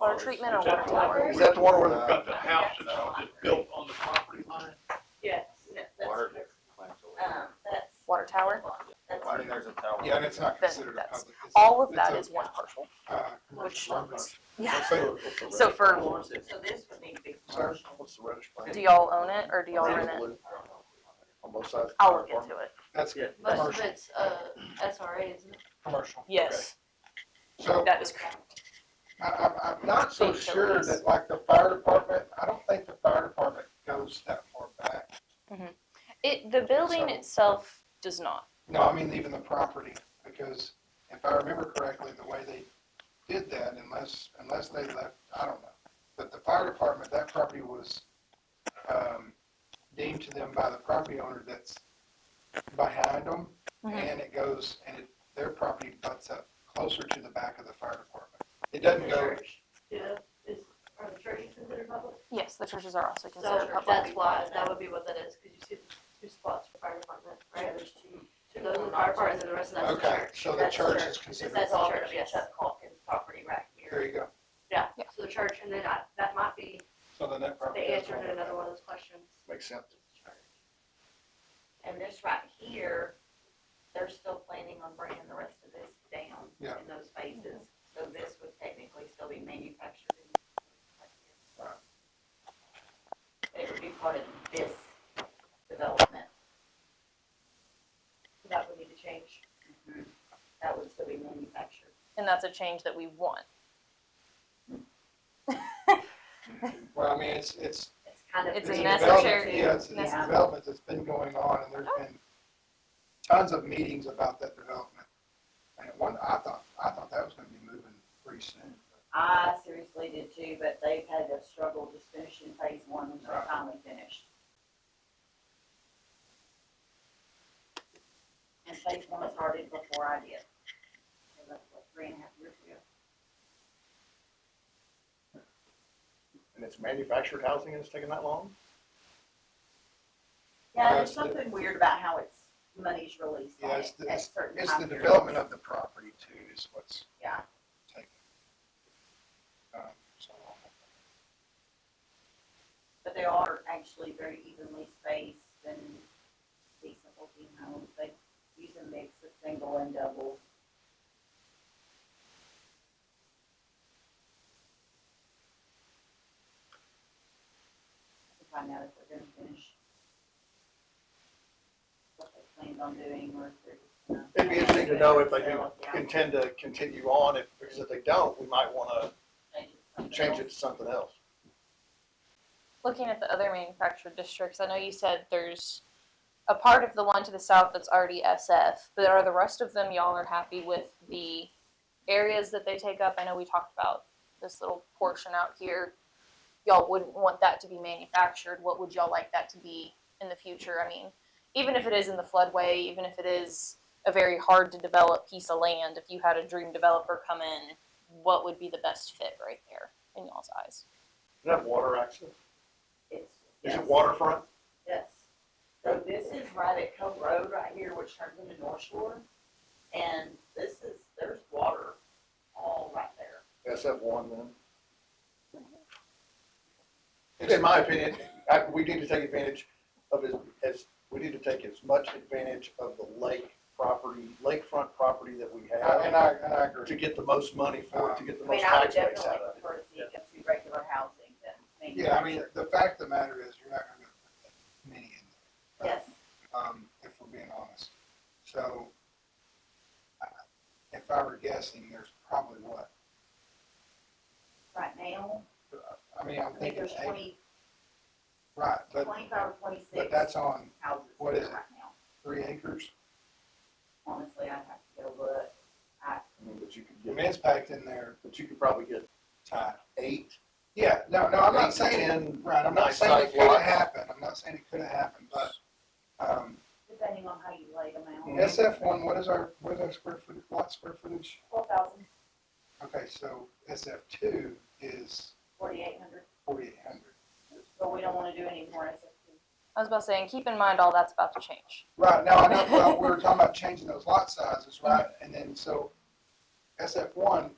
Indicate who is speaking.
Speaker 1: water treatment or water tower?
Speaker 2: Is that the one where
Speaker 3: We've
Speaker 2: the,
Speaker 3: got the house that's that's built on the property line.
Speaker 4: Yes, no,
Speaker 5: Water.
Speaker 4: that's, um, that's,
Speaker 1: Water tower?
Speaker 4: that's.
Speaker 5: I mean, there's a tower.
Speaker 2: yeah, and it's not
Speaker 1: Then
Speaker 2: considered a
Speaker 1: that's-
Speaker 2: public. it's-
Speaker 1: All of
Speaker 2: it's
Speaker 1: that
Speaker 2: a,
Speaker 1: is one parcel.
Speaker 2: uh,
Speaker 1: which-
Speaker 2: commercial.
Speaker 1: Yeah.
Speaker 2: So,
Speaker 1: So for,
Speaker 4: So this would need to be
Speaker 2: Sorry,
Speaker 4: commercial.
Speaker 2: what's the reddish brown?
Speaker 1: do y'all own it or do y'all rent it?
Speaker 2: On both sides.
Speaker 1: I'll look into it.
Speaker 2: That's
Speaker 6: But
Speaker 2: commercial,
Speaker 6: but it's uh SRA, isn't it?
Speaker 2: commercial.
Speaker 1: Yes,
Speaker 2: So
Speaker 1: that is correct.
Speaker 2: I, I'm, I'm not so
Speaker 1: Big
Speaker 2: sure
Speaker 1: shoulders.
Speaker 2: that like the fire department, I don't think the fire department goes that far back.
Speaker 1: It, the building
Speaker 2: So-
Speaker 1: itself does not.
Speaker 2: No, I mean, even the property, because if I remember correctly, the way they did that, unless, unless they left, I don't know. But the fire department, that property was, um, deemed to them by the property owner that's behind them.
Speaker 1: Mhm.
Speaker 2: And it goes, and it, their property butts up closer to the back of the fire department. It doesn't go,
Speaker 4: Church, yeah, is, are the churches considered public?
Speaker 1: Yes, the churches are also
Speaker 6: So
Speaker 1: considered public.
Speaker 6: that's why, that would be what that is, cause you see the two spots for fire department, right? There's two, two those are the fire department and the rest of that's the
Speaker 2: okay,
Speaker 6: church.
Speaker 2: so the
Speaker 6: That's
Speaker 2: church is
Speaker 6: Is
Speaker 2: considered,
Speaker 6: that the church,
Speaker 4: Yes,
Speaker 6: yes,
Speaker 4: that's Calkins property right
Speaker 2: there
Speaker 4: here.
Speaker 2: you go.
Speaker 6: yeah,
Speaker 1: Yeah.
Speaker 6: so the church, and then I, that might be
Speaker 2: So then that
Speaker 6: the
Speaker 2: property.
Speaker 6: answer to another one of those questions.
Speaker 2: Makes sense.
Speaker 4: And this right here, they're still planning on bringing the rest of this down
Speaker 2: Yeah.
Speaker 4: in those phases. So this would technically still be manufactured. in-
Speaker 2: Right.
Speaker 4: It would be part of this development.
Speaker 6: That would need to change.
Speaker 3: Mm-hmm.
Speaker 4: That would still be manufactured.
Speaker 1: And that's a change that we want.
Speaker 2: Well, I mean, it's, it's,
Speaker 4: It's kind of.
Speaker 1: It's a
Speaker 2: It's a
Speaker 1: necessary-
Speaker 2: development, Yeah, it's, it's a
Speaker 4: Yeah.
Speaker 2: development that's been going on, and there's been tons of meetings about that development. And at one, I thought, I thought that was gonna be moving pretty soon.
Speaker 4: I seriously did too, but they've had a struggle just finishing phase one and they're finally finished. And phase one started before I did. So that's what, three and a half years ago.
Speaker 5: And it's manufactured housing and it's taking that long?
Speaker 4: Yeah, there's
Speaker 2: That's the-
Speaker 4: something weird about how it's, money's released
Speaker 2: Yeah,
Speaker 4: on
Speaker 2: it's
Speaker 4: it
Speaker 2: the-
Speaker 4: at certain
Speaker 2: It's the
Speaker 4: time periods.
Speaker 2: development of the property too, is what's
Speaker 4: Yeah,
Speaker 2: taken. Um, so,
Speaker 4: but they are actually very evenly spaced and decent looking homes. They use a mix of single and double. To find out if they're gonna finish what they planned on doing or if they're just gonna.
Speaker 5: It'd be interesting to know if they do
Speaker 4: Sell it down,
Speaker 5: intend to continue on, if, because if they don't, we might wanna
Speaker 4: change it something
Speaker 5: change
Speaker 4: else.
Speaker 5: it to something else.
Speaker 1: Looking at the other manufactured districts, I know you said there's a part of the one to the south that's already SF, but are the rest of them, y'all are happy with the areas that they take up? I know we talked about this little portion out here. Y'all wouldn't want that to be manufactured. What would y'all like that to be in the future? I mean, even if it is in the floodway, even if it is a very hard to develop piece of land, if you had a dream developer come in, what would be the best fit right there in y'all's eyes?
Speaker 5: Does it have water access?
Speaker 4: It's-
Speaker 5: Is it
Speaker 4: yes.
Speaker 5: waterfront?
Speaker 4: Yes. So this is right at Cove Road right here, which turns into North Shore. And this is, there's water all right there.
Speaker 5: SF one then? In my opinion, I, we need to take advantage of as, as, we need to take as much advantage of the lake property, lakefront property that we
Speaker 2: I- And
Speaker 5: have
Speaker 2: I, and I
Speaker 5: to
Speaker 2: agree.
Speaker 5: get the most money for it, to get the
Speaker 4: I mean,
Speaker 5: most
Speaker 4: I would
Speaker 5: tax base
Speaker 4: definitely
Speaker 5: out of it.
Speaker 4: prefer to see it come to regular housing than manufactured.
Speaker 2: Yeah, I mean, the fact of the matter is, you're not gonna put that many in there.
Speaker 4: Yes,
Speaker 2: um, if we're being honest. So, I- if I were guessing, there's probably what,
Speaker 4: right now,
Speaker 2: I mean, I'm
Speaker 4: I think
Speaker 2: thinking
Speaker 4: there's
Speaker 2: eight,
Speaker 4: twenty,
Speaker 2: right, but,
Speaker 4: twenty-five or
Speaker 2: but
Speaker 4: twenty-six
Speaker 2: that's on
Speaker 4: houses
Speaker 2: what
Speaker 4: there
Speaker 2: is it?
Speaker 4: right now.
Speaker 2: three acres.
Speaker 4: Honestly, I'd have to go look. I,
Speaker 5: I mean, But you could
Speaker 2: The
Speaker 5: get,
Speaker 2: man's packed in there
Speaker 5: but you could probably get
Speaker 2: tight.
Speaker 5: eight.
Speaker 2: Yeah, no, no, I'm
Speaker 5: eight
Speaker 2: not
Speaker 5: to
Speaker 2: saying,
Speaker 5: 10
Speaker 2: right, I'm not
Speaker 5: nice
Speaker 2: saying it
Speaker 5: sized
Speaker 2: could've
Speaker 5: lots.
Speaker 2: happened, I'm not saying it could've happened, but, um,
Speaker 4: depending on how you lay them out,
Speaker 5: Mhm.
Speaker 2: SF one, what is our, what is our square footage, lot square footage?
Speaker 4: twelve thousand,
Speaker 2: Okay, so SF two is
Speaker 4: forty-eight hundred,
Speaker 2: forty-eight hundred.
Speaker 4: but we don't wanna do any more SFP.
Speaker 1: I was about to say, and keep in mind all that's about to change.
Speaker 2: Right, now, I know, well, we were talking about changing those lot sizes, right, and then, so, SF one,